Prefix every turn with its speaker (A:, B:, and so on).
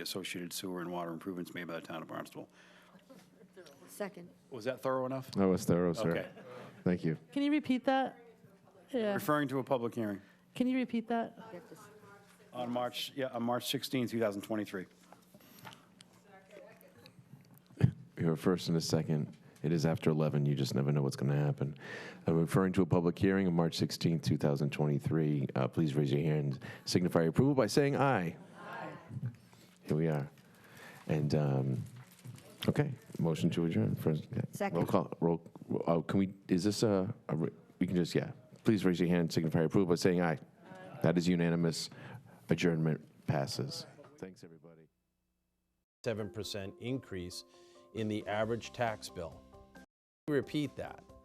A: associated sewer and water improvements made by the town of Barnstable.
B: Second.
A: Was that thorough enough?
C: That was thorough, sir.
A: Okay.
C: Thank you.
D: Can you repeat that? Yeah.
A: Referring to a public hearing
D: Can you repeat that?
B: You have to s-
A: on March, yeah, on March 16, 2023.
C: You have a first and a second. It is after 11. You just never know what's going to happen. I'm referring to a public hearing on March 16, 2023. Uh, please raise your hand. Signify your approval by saying aye. Aye. Here we are. And, um, okay, motion to adjourn. First, yeah. Roll
B: Second.
C: call. Roll, oh, can we, is this a, a re- we can just, yeah. Please raise your hand. Signify your approval by saying aye. That is unanimous. Adjournment passes. Thanks, everybody.
E: 7% increase in the average tax bill. Repeat that.